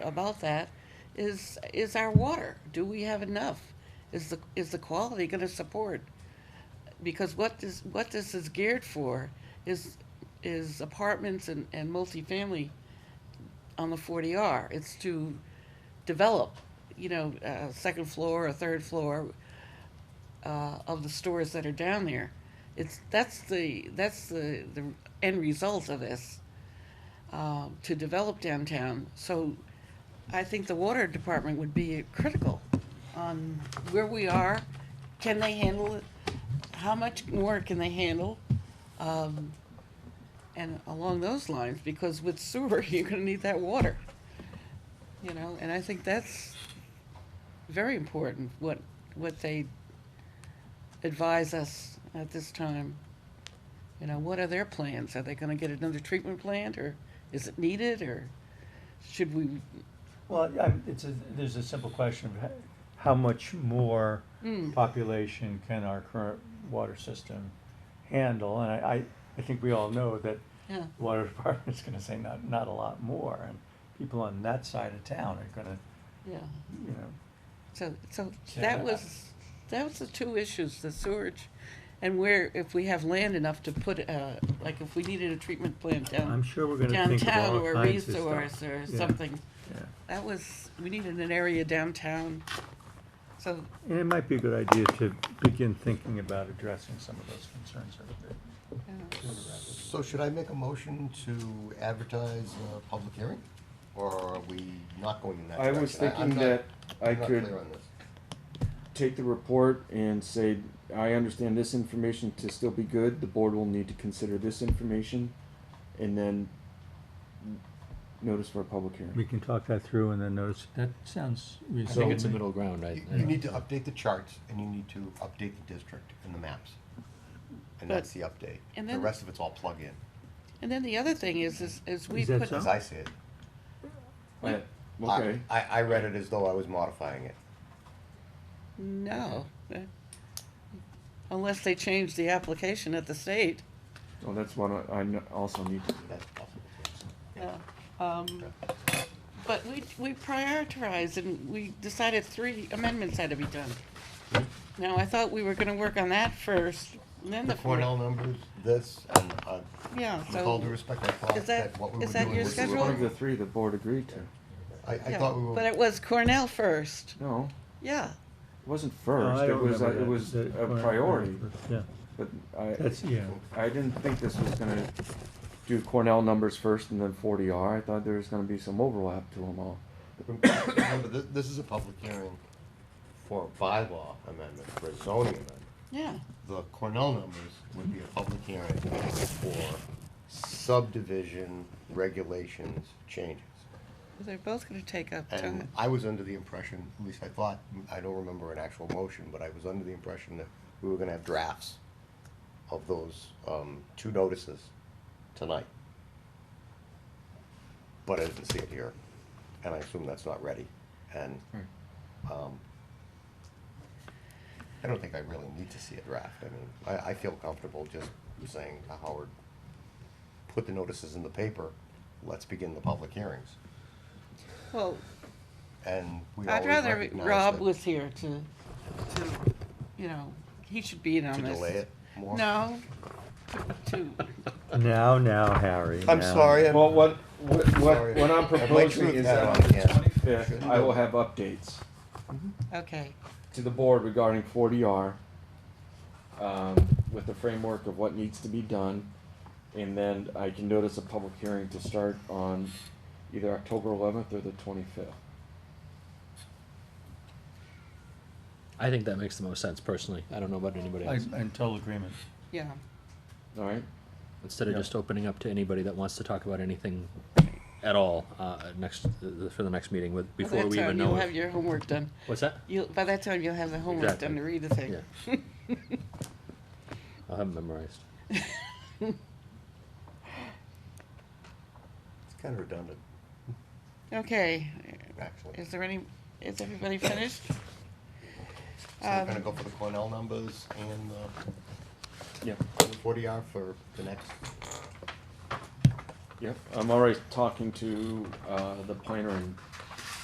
about that is, is our water. Do we have enough? Is the, is the quality gonna support? Because what this, what this is geared for is, is apartments and, and multifamily on the forty R. It's to develop, you know, a second floor or third floor uh, of the stores that are down there. It's, that's the, that's the, the end result of this uh, to develop downtown. So I think the water department would be critical on where we are. Can they handle it? How much more can they handle? Um, and along those lines, because with sewer, you're gonna need that water. You know, and I think that's very important, what, what they advise us at this time. You know, what are their plans? Are they gonna get another treatment plant, or is it needed, or should we, Well, I, it's a, there's a simple question of h- how much more Mm. population can our current water system handle? And I, I, I think we all know that yeah. the water department's gonna say not, not a lot more. And people on that side of town are gonna, Yeah, you know, so, so So that I- was, that was the two issues, the sewage and where, if we have land enough to put, uh, like if we needed a treatment plant I'm down, sure we're gonna think of downtown all or kinds of stuff. resource or Yeah, something. yeah. That was, we needed an area downtown, so, and it might be a good idea to begin thinking about addressing some of those concerns a bit. yeah. sooner rather than- So should I make a motion to advertise a public hearing? Or are we not going in that I direction? was I'm thinking not- that I I'm not could clear on this. take the report and say, I understand this information to still be good, the board will need to consider this information, and then notice for a public We hearing. can talk that through and then notice, that sounds I reasonable. think it's a middle ground, I, You- You need to update the charts and you need to update the district and the maps. And But- that's the update. and The then- rest of it's all plug-in, And then the other thing is, is, is we Is that put, so? as I see it. Right, I- Uh, Okay, I, I read it as though I was modifying it. no. Unless they change the application at the state, well, that's what I, I kn- also need to do. That's possible. yeah. Um, But we, we prioritized and we decided three amendments had to be done. Now, I thought we were gonna work on that first, and then The the. fourth. Cornell numbers, this, and uh, Yeah, with all due so, respect, I thought Is that- that what we were is that doing your was. This is one of schedule? the three the board agreed to. I, I yeah, thought we were. but it was Cornell first, No, yeah. it wasn't No, first, I it don't was, a- remember it that. was That- a or- priority, Yeah, but I, that's, yeah. I didn't think this was gonna do Cornell numbers first and then forty R. I thought there was gonna be some overlap to them all. Remember, this, this is a public hearing for a bylaw amendment, for a zoning amendment. Yeah, The Cornell numbers would be a public hearing for subdivision regulations changes. they're both gonna take up And time. I was under the impression, at least I thought, I don't remember an actual motion, but I was under the impression that we were gonna have drafts of those, um, two notices tonight. But I didn't see it here, and I assume that's not ready, and, um, I don't think I really need to see a draft, I mean, I, I feel comfortable just saying to Howard, put the notices in the paper, let's begin the public hearings, Well, and we I'd always rather recognize Rob that- was here to, to, you know, he should be in on To this. delay it more? No, to, Now, now, Harry. I'm now. sorry, I'm, Well, what, what, Sorry. what, what I'm I might proposing shoot is uh, that that on one, the yeah. twenty-fifth, I will have updates okay, to the board regarding forty R. Um, with the framework of what needs to be done, and then I can notice a public hearing to start on either October eleventh or the twenty-fifth. I think that makes the most sense personally. I don't know about anybody I, else. I'm in total agreement. yeah. Alright, Instead of Yeah. just opening up to anybody that wants to talk about anything at all, uh, next, uh, for the next meeting with, By before that we time, even know. You'll if- have your homework done. What's that? You'll, by that time, you'll have the homework done Exactly. to read the thing. Yeah. I'll have it memorized. it's kind of redundant, Okay, actually. So is there any, is everybody finished? we're Um, gonna go for the Cornell numbers and the yep, forty R for the next, yep, I'm already talking to, uh, the planner and